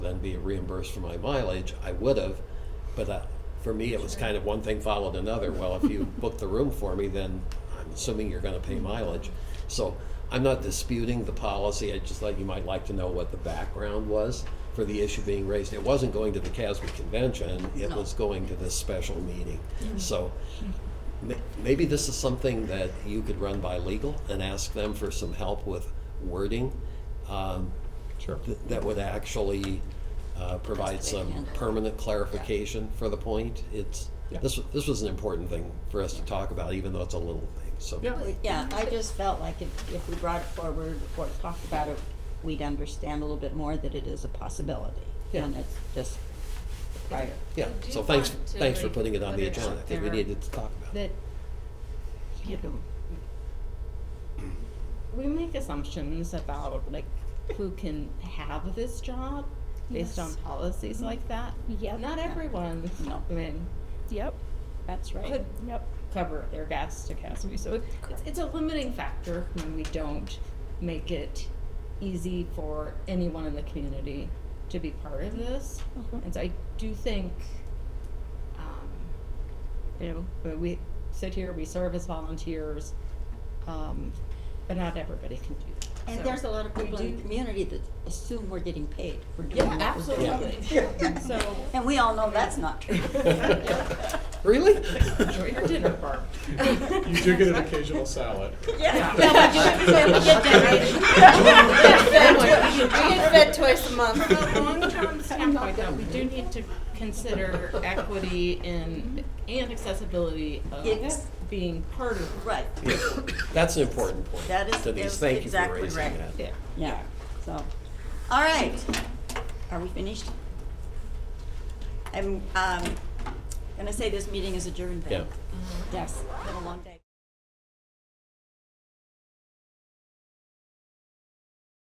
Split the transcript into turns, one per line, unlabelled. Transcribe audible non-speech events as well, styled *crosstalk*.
be reimbursed for my mileage, I would have. But uh, for me, it was kind of one thing followed another. Well, if you book the room for me, then I'm assuming you're going to pay mileage. So I'm not disputing the policy. I just thought you might like to know what the background was for the issue being raised. It wasn't going to the CASB convention. It
No.
was going to this special meeting. So ma- maybe this is something that you could run by legal and ask them for some help with wording. Um,
Sure.
th- that would actually uh, provide some permanent clarification for the point. It's,
Yeah.
this, wa- this was an important thing for us to talk about, even though it's a little thing, so.
Yeah.
Yeah, I just felt like if, if we brought it forward or talked about it, we'd understand a little bit more that it is a possibility.
Yeah.
And it's just prior.
Yeah,
I do
so thanks,
want to,
thanks for
like,
putting it on
put
the
it
agenda.
out
I think we
there
needed to talk about it.
that
You know,
we make assumptions about like who can have this job based on
Yes.
policies like that.
Yep.
Not everyone.
No.
I mean,
Yep.
that's right.
could
Yep.
cover their gas to Casby. So it- it's, it's a limiting factor when we don't make it easy for anyone in the community to be part of this.
Mhm.
And so I do think, um, you know, but we sit here, we serve as volunteers, um, but not everybody can do that.
And
So-
there's a lot of
we
people in the
do-
community that assume we're getting paid for doing
Yeah,
what we're doing.
absolutely. So.
*laughs* And we all know that's not *laughs* true.
*laughs*
*laughs*
Really?
Enjoy your dinner, Barb.
You do get an occasional salad.
Yeah.
Yeah,
we do. We get *laughs*
decorated.
We get fed twice a month.
From a long-term standpoint, though, we do need to consider equity in, and accessibility
Yes.
of being part of
Right,
That's an important point.
That is-
to these.
is
Thank you for
exactly
raising
right.
that.
there.
yeah, so, all right. Are we finished? I'm, um, gonna say this meeting is adjourned then.
Yeah.
Yes, been a long day.